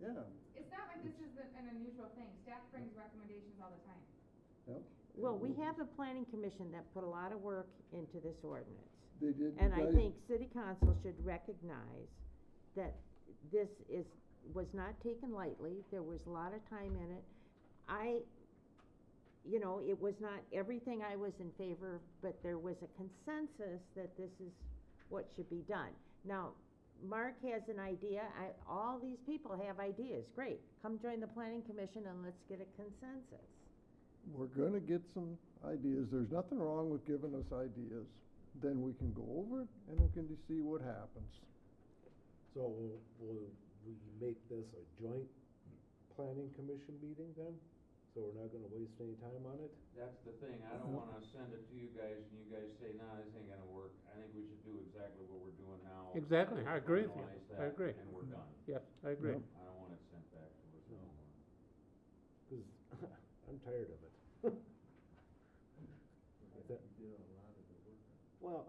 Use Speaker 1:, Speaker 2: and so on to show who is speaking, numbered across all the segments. Speaker 1: Yeah,
Speaker 2: It's not like this is an an unusual thing, staff brings recommendations all the time.
Speaker 1: yep.
Speaker 3: Well, we have the planning commission that put a lot of work into this ordinance.
Speaker 1: They did.
Speaker 3: And I
Speaker 1: guys-
Speaker 3: think city council should recognize that this is, was not taken lightly, there was a lot of time in it. I, you know, it was not everything I was in favor of, but there was a consensus that this is what should be done. Now, Mark has an idea, I, all these people have ideas, great, come join the planning commission and let's get a consensus.
Speaker 1: We're gonna get some ideas. There's nothing wrong with giving us ideas. Then we can go over it and we can see what happens.
Speaker 4: So will, will we make this a joint planning commission meeting then? So we're not gonna waste any time on it?
Speaker 5: That's the thing, I don't wanna send it to you guys and you guys say, nah, this ain't gonna work. I think we should do exactly what we're doing now.
Speaker 6: Exactly, I agree with you.
Speaker 5: Finalize
Speaker 6: I
Speaker 5: that,
Speaker 6: agree.
Speaker 5: And we're done.
Speaker 6: Yes, I agree.
Speaker 1: Yep.
Speaker 5: I don't want it sent back to us
Speaker 4: No.
Speaker 5: anymore.
Speaker 4: Cause I'm tired of it. Is that- Well,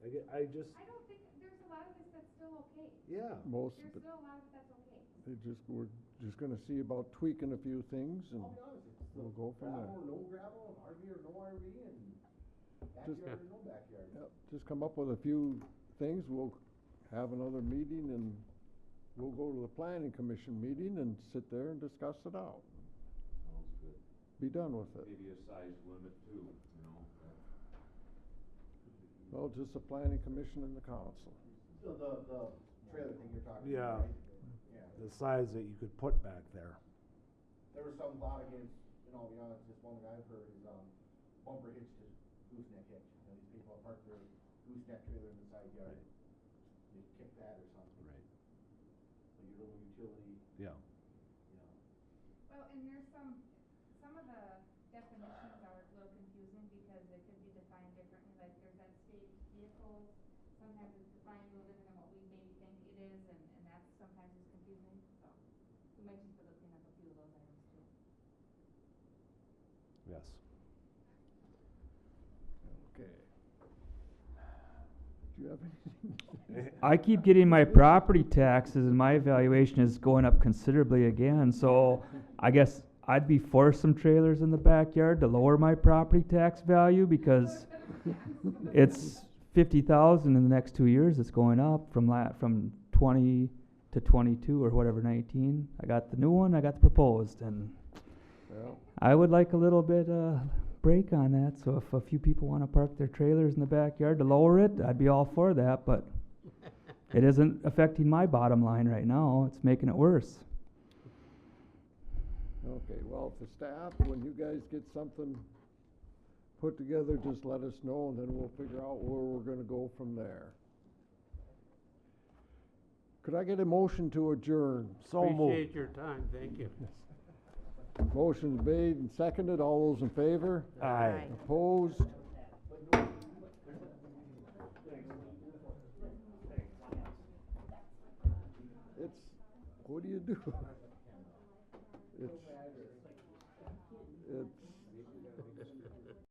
Speaker 4: I get, I just,
Speaker 2: I don't think, there's a lot of this that's still okay.
Speaker 4: yeah,
Speaker 1: Most
Speaker 2: There's
Speaker 1: of it,
Speaker 2: still a lot of it that's okay.
Speaker 1: they just, we're just gonna see about tweaking a few things and
Speaker 7: I'll be honest, it's
Speaker 1: we'll
Speaker 7: the
Speaker 1: go from
Speaker 7: gravel
Speaker 1: there.
Speaker 7: or no gravel, and RV or no RV, and backyard or no backyard.
Speaker 1: Yep, just come up with a few things. We'll have another meeting and we'll go to the planning commission meeting and sit there and discuss it out.
Speaker 5: Sounds good.
Speaker 1: Be done with it.
Speaker 5: Maybe a size limit too, you know?
Speaker 1: Well, just the planning commission and the council.
Speaker 7: So the, the trailer thing you're talking
Speaker 4: Yeah.
Speaker 7: about, right? Yeah.
Speaker 4: the size that you could put back there.
Speaker 7: There was some thought against, and I'll be honest, just one thing I've heard is, um, bumper hitch to gooseneck hitch. You know, these people park their gooseneck trailer in the side yard, they kick that or something. Like your little utility,
Speaker 4: Yeah.
Speaker 7: you know.
Speaker 2: Well, and there's some, some of the definitions are a little confusing because they could be defined differently, like there's that state vehicles, sometimes it's defined a little different than what we maybe think it is, and, and that's sometimes is confusing, so. We might just be looking up a few of those items too.
Speaker 4: Yes.
Speaker 1: Okay. Do you have anything? to say?
Speaker 8: I keep getting my property taxes and my evaluation is going up considerably again, so I guess I'd be for some trailers in the backyard to lower my property tax value because it's fifty thousand in the next two years, it's going up from la- from twenty to twenty-two or whatever, nineteen. I got the new one, I got the proposed, and
Speaker 1: Well,
Speaker 8: I would like a little bit, uh, break on that, so if a few people wanna park their trailers in the backyard to lower it, I'd be all for that, but it isn't affecting my bottom line right now, it's making it worse.
Speaker 1: okay, well, for staff, when you guys get something put together, just let us know and then we'll figure out where we're gonna go from there. Could I get a motion to adjourn?
Speaker 4: So moved.
Speaker 6: Appreciate your time, thank you.
Speaker 1: Motion's made and seconded. All those in favor?
Speaker 4: Aye.
Speaker 3: Right.
Speaker 1: Opposed? It's, what do you do? It's.